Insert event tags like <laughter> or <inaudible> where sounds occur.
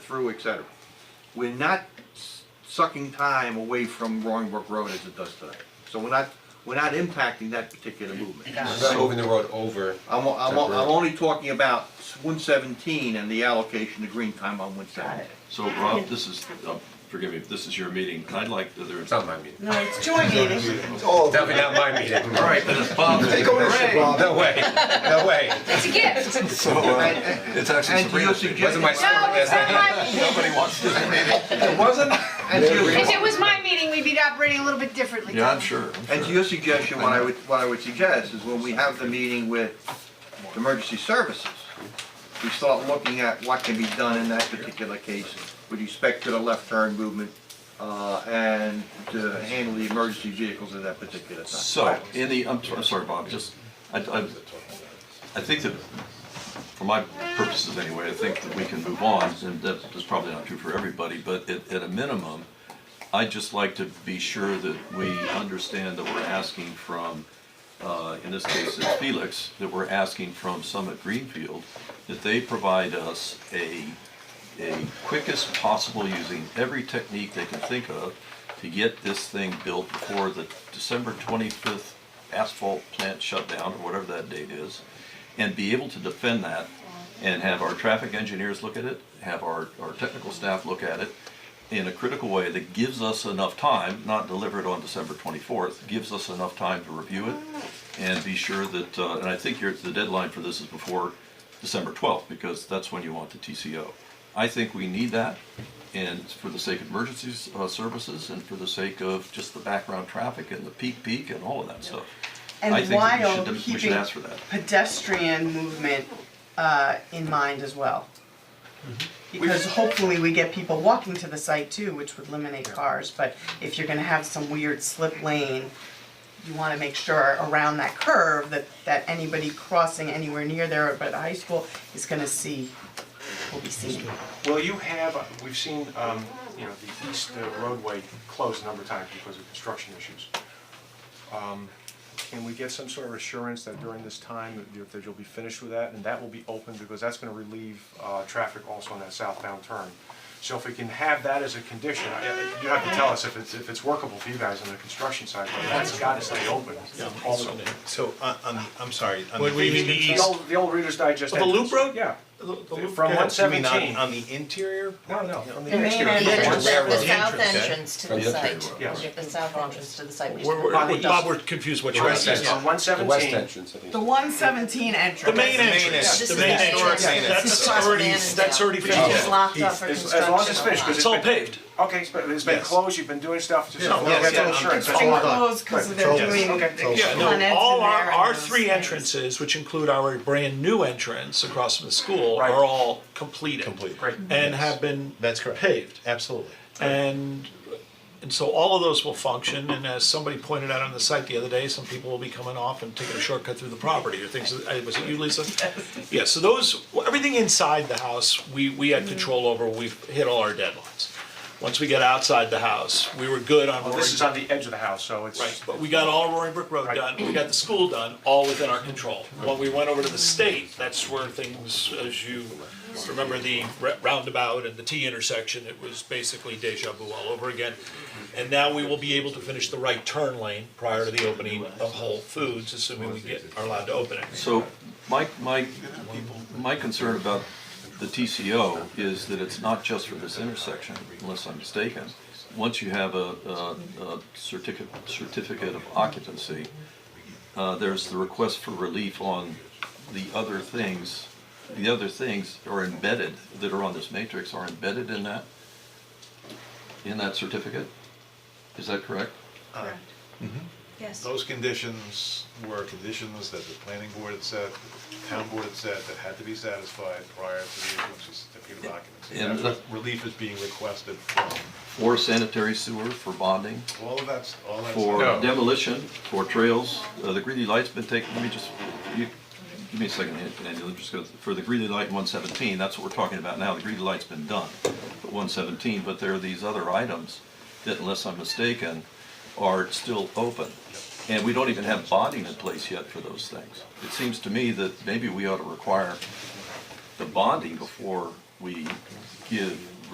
through, et cetera. We're not s- sucking time away from Roaring Brook Road as it does today. So we're not, we're not impacting that particular movement. We're not moving the road over. I'm, o- I'm, o- I'm Temporary. only talking about one seventeen and the allocation of green time on one seventeen. So Rob, this is, uh, forgive me, if this is your meeting, I'd like, to- It's not my meeting. No, it's joint meeting. Oh, Definitely not my meeting. All right, then it's Bob's. take ownership, Rob. No way, no way. It's a gift. So, uh, It's actually And to your Sabrina's meeting. Wasn't suggestion, my No, it's not son. <laughs> my meeting. Nobody wants this meeting. it wasn't, and to your- If it was my Meeting, we'd be operating a little bit differently. Yeah, I'm sure, I'm And to sure. your suggestion, what I would, what I would suggest is when we have the meeting with emergency services, we start looking at what can be done in that particular case with respect to the left turn movement, uh, and to handle the emergency vehicles at that particular time. So, in the, I'm, I'm sorry, Bob, just, I, I, I think that, for my purposes anyway, I think that we can move on, and that's, that's probably not true for everybody, but at, at a minimum, I'd just like to be sure that we understand that we're asking from, uh, in this case, it's Felix, that we're asking from Summit Greenfield, that they provide us a, a quickest possible, using every technique they can think of, to get this thing built before the December twenty-fifth asphalt plant shutdown, or whatever that date is, and be able to defend that, and have our traffic engineers look at it, have our, our technical staff look at it, in a critical way that gives us enough time, not delivered on December twenty-fourth, gives us enough time to review it and be sure that, uh, and I think your, the deadline for this is before December twelfth, because that's when you want the TCO. I think we need that, and for the sake of emergencies, uh, services, and for the sake of just the background traffic and the peak peak and all of that stuff. I And think that we while should- We should keeping- ask for that. Pedestrian movement uh, in mind as well. Mm-hmm. Because hopefully we get people walking to the site too, which would eliminate cars, but if you're gonna have some weird slip lane, you wanna make sure around that curve that, that anybody crossing anywhere near there or by the high school is gonna see, will be seen. Well, you have, uh, we've seen, um, you know, the east uh, roadway closed a number of times because of construction issues. Um, Can we get some sort of assurance that during this time, that you- that you'll be finished with that, and that will be open, because that's gonna relieve, uh, traffic also on that southbound turn. So if we can have that as a condition, I- I- you have to tell us if it's, if it's workable for you guys on the construction side, but that's gotta stay open also. So, on, on the, I'm sorry, on Would the we leaving the be- east. The old, the old Reader's Digest. The loop entrance. road? Yeah. The- the loop- From yeah, you mean On, 117. on the interior? No, no, from the The main exterior. entrance. Yeah, The- The railroad south entrance, okay. entrance to the From the site. entryway. Yes. The south entrance to the site. which is- Oh, We're, On the we're, east. Bob, we're confused what you're West asking. entrance. On one The west seventeen, entrance, I think. The one seventeen entrance. The main No, entrance, this the is main the entrance. entrance, This that's is across already, Vandenberg, that's already which is finished. locked up for As- as construction. long as it's finished, 'cause a It's lot. all paved. okay, it's been, it's been Yes. closed, you've been doing stuff, just, No, no, yes, that's yeah, insurance, It's that's all. closed because they're Right. doing Okay. the Yeah, Con Ed's no, all in there our, and our those three things. entrances, which include our brand-new entrance across from the school, Right. are all completed. Completed. Great. And have been That's correct. paved. Absolutely. And, and so all of those will function, and as somebody pointed out on the site the other day, some people will be coming off and taking a shortcut through the property or things, uh, was it you, Lisa? Yeah, so those, well, everything inside the house, we, we had control over, we've hit all our deadlines. Once we get outside the house, we were good on. Well, this is on the edge of the house, so it's. Right, but we got all Roaring Brook Road Right. done, we got the school done, all within our control. When we went over to the state, that's where things, as you remember the ra- roundabout and the T intersection, it was basically deja vu all over again. And now we will be able to finish the right turn lane prior to the opening of Whole Foods, assuming we get, are allowed to open it. So my, my, my concern about the TCO is that it's not just for this intersection, unless I'm mistaken. Once you have a, a, a certificate, certificate of occupancy, uh, there's the request for relief on the other things. The other things are embedded, that are on this matrix, are embedded in that, in that certificate? Is that correct? Yes. Those conditions were conditions that the planning board had set, the town board had set, that had to be satisfied prior to the issuance of certificate of occupancy. And That's what relief is being requested from, For sanitary sewer, for bonding? all of that's, all that's. for No. demolition, for trails, uh, the Greeley Light's been taken, let me just, you, give me a second, Andy, let me just go, for the Greeley Light one seventeen, that's what we're talking about now, the Greeley Light's been done, but one seventeen, but there are these other items that unless I'm mistaken, are still open. And we don't even have bonding in place yet for those things. It seems to me that maybe we ought to require the bonding before we give